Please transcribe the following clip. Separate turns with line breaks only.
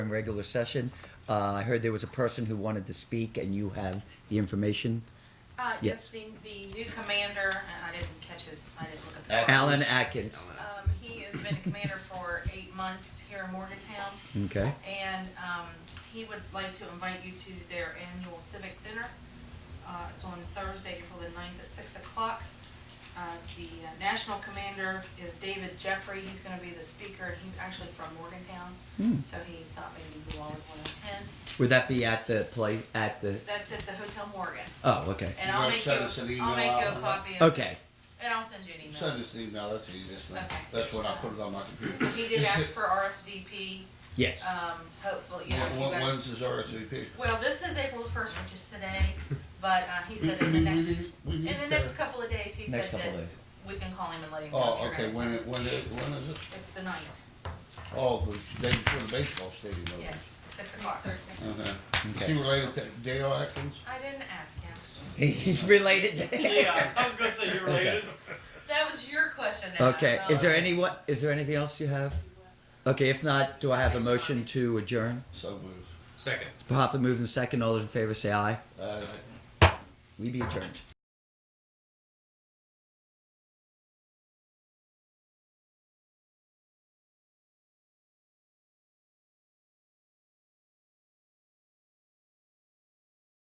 in regular session. Uh, I heard there was a person who wanted to speak, and you have the information.
Uh,
Yes.
yes, the, the new commander, and I didn't catch his, I didn't look at the.
Atkins.
Alan Atkins.
Um, he has been a commander for eight months here in Morgantown,
Okay.
and, um, he would like to invite you to their annual civic dinner. Uh, it's on Thursday, April the ninth at six o'clock. Uh, the uh, national commander is David Jeffrey, he's gonna be the speaker, and he's actually from Morgantown,
Hmm.
so he thought maybe you all would wanna attend.
Would that be at the play at the?
That's at the Hotel Morgan,
Oh, okay.
and
You
I'll
wanna
make you,
send us an email
I'll make you
out
a
on that?
copy of
Okay.
this, and I'll send you an email.
Send us an email, that's the easiest thing.
Okay.
That's when I put it on my computer.
He did ask for RSVP,
Yes.
um, hopefully, you know, if you
When-
guys,
When's his RSVP?
well, this is April first, which is today, but, uh, he said in the next, in the next couple of days, he said
Next couple
that
days.
we can call him and let him know. if
Oh,
you're
okay,
gonna
when,
attend.
it- when, it- when is it?
It's the ninth,
Oh, the day before the baseball stadium opens.
yes, six o'clock.
Okay. Is
Okay.
he related to Dale Atkins?
I didn't ask him.
He's related.
Yeah, I was gonna say you're related.
That was your question. that I
Okay.
thought-
Is there any what? Is there anything else you have? Okay. If not, do I have a motion to adjourn?
So moved.
Second.
It's properly moved and second. All those in favor say aye.
Uh,
We be adjourned.